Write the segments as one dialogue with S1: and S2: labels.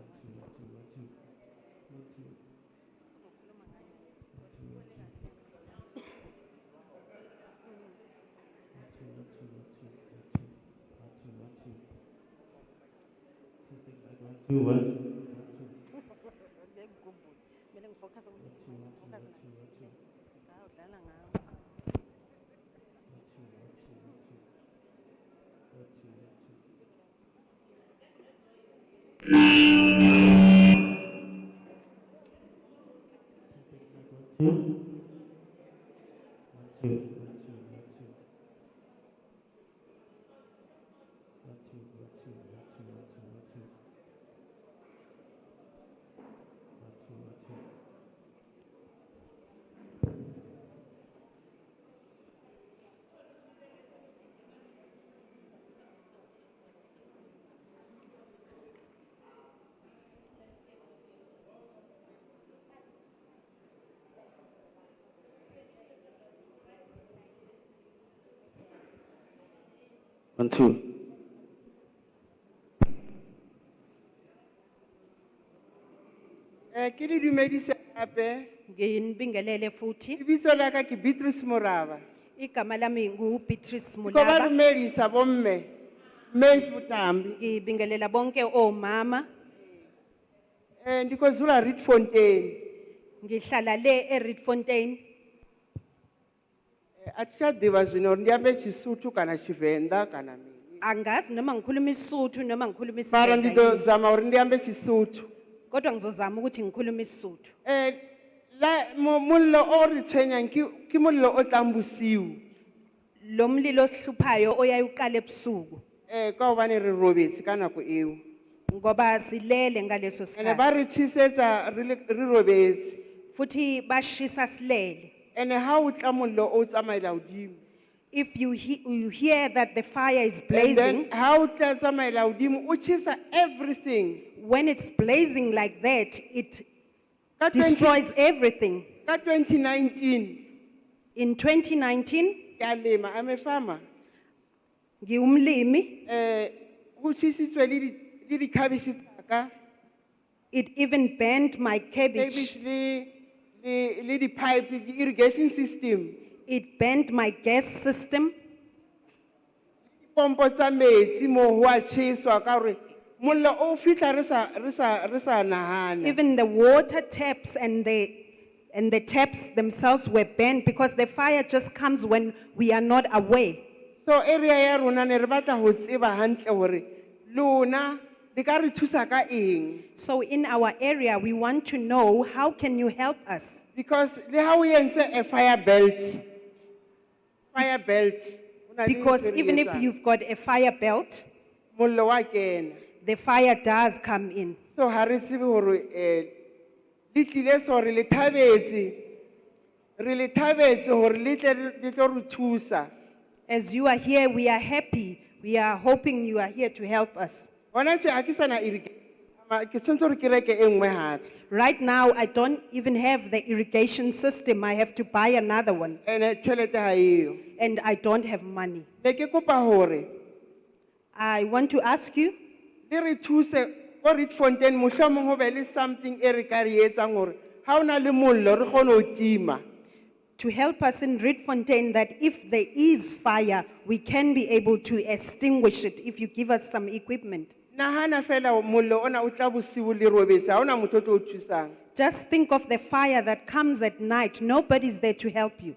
S1: Nothing, nothing, nothing,
S2: uzokhuluma ngayo
S1: nothing, nothing, nothing, nothing, nothing, nothing, nothing, nothing. Just like that, nothing, what? Nothing,
S2: ngekugumbula kumele ngifocus
S1: nothing, nothing, nothing, nothing,
S2: awudlala ngayo
S1: nothing, nothing, nothing, nothing, nothing. Just like that, nothing. Nothing, nothing, nothing. Nothing, nothing, nothing, nothing, nothing. Nothing, nothing. One, two.
S3: Eh, ke le dumedise gape
S2: nginibingelele futhi
S3: lebiso la ka ke beatrice moraba
S2: igama lami ngubeatrice
S3: ko ba
S2: mulaba
S3: dumedisa bomme mase botambi
S2: ngibingelela bonke omama
S3: um ndikozula reed fontain
S2: ngihlala le eredfontein
S3: Eh, atitshaḓivha zwino uri ndi ambe tshisuthu kana tshivenḓa kana mini
S2: angazi noma ngikhuluma isuthu noma ngikhuluma
S3: mara ndi ḓo
S2: isiVenda
S3: zama uri ndi ambe tshisuthu
S2: yini. kodwa ngizozama ukuthi ngikhuluma isuthu
S3: um la mo- mollo o re tshwenyang ke ke mollo o tlang bosiu
S2: lo mlilo ohluphayo oyaye uqala ebusuku
S3: um ka gobane re robetse ka nako eo
S2: ngoba silele ngaleso
S3: ande ba
S2: sikhathi
S3: re tshisetsa re le- re robetse
S2: futhi bashisa silele
S3: ande ga o tla mollo o o tsamaela godimo
S2: if you, he, you hear that the fire is
S3: And
S2: blazing
S3: then how tla tsamaela godimo o chisa everything
S2: when it's blazing like that it
S3: ka 20
S2: destroys everything
S3: ka 2019
S2: in 2019
S3: ke a lema I'm a farmer
S2: ngiwumlimi
S3: um go chisitswe le di- le dikhabese tsaka
S2: it even burned my
S3: cabbage
S2: cabbage
S3: le- le le di-pipe di-irrigation system
S2: it burned my gas system
S3: pompo tsa metsi moo go a cheswa ka gore mollo o fitlha re sa- re sa- re sa nagana
S2: even the water taps and the and the taps themselves were burned because the fire just comes when we are not aware
S3: so area ya rona ne re batla go tseba gantle gore lona le ka re thusa ka eng
S2: so in our area we want to know how can you help us
S3: Because le ha o entse a fire belt, fire belt. ho na le
S2: because
S3: ntho e re
S2: even if
S3: etsang,
S2: you've got a fire belt
S3: mollo wa kena.
S2: the fire does come in
S3: So ha re tsebe hore eh le tlile so re le thabetse, re le thabetse hore le tle re- le tlo re thusa.
S2: as you are here we are happy we are hoping you are here to help us
S3: Hona tje ha ke sana irrigation, ama- ke tshwantse hore ke reke e nngwe hape.
S2: right now i don't even have the irrigation system i have to buy another one
S3: Ene tjhelete ha eyo.
S2: and i don't have money
S3: Ne ke kopa hore
S2: i want to ask you
S3: le E re thuse ko Reed Fontaine mohlomong ho be le something e re ka re etsang hore ha o na le mollo re kgone ho tima.
S2: to help us in Redfontaine that if there is fire, we can be able to extinguish it if you give us some equipment.
S3: nagana fela mollo ona o tla bosiu le robetse ga ona motho o tlo o thusang
S2: Just think of the fire that comes at night. Nobody's there to help you.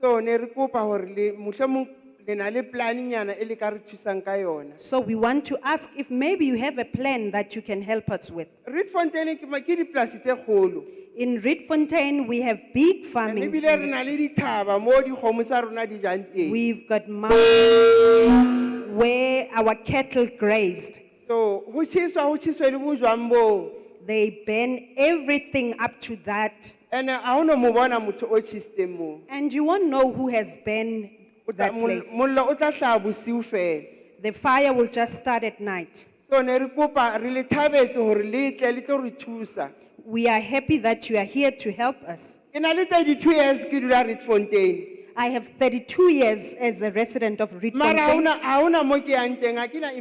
S3: so ne re kopa gore le motlhomong le na le planenyana e le ka re thusang ka yona
S2: So we want to ask if maybe you have a plan that you can help us with.
S3: reed fontaine ke ma- ke dipolase tse kgolo
S2: In Redfontaine, we have big
S3: And
S2: farming.
S3: ebile re na le dithaba mo dikgomo tsa rona di jang teng
S2: We've got mountains where our cattle grazed.
S3: so go tšhiswa go tšhiswe le bojwang boo
S2: They burn everything up to that.
S3: and-e ga o no mo bona motho o tšhisitseng moo
S2: And you won't know who has burned
S3: O tla-
S2: that
S3: mol-
S2: place.
S3: mollo o tla tlhaa bosiu fela
S2: The fire will just start at night.
S3: so ne re kopa re le thabetse gore le tle le tlo re thusa
S2: We are happy that you are here to help us.
S3: ke na le thirty-two years ke dula reed fontaine
S2: I have 32 years as a resident of Reed
S3: mara
S2: Fontaine.
S3: ha ona- ha ona mo ke yang teng ga kena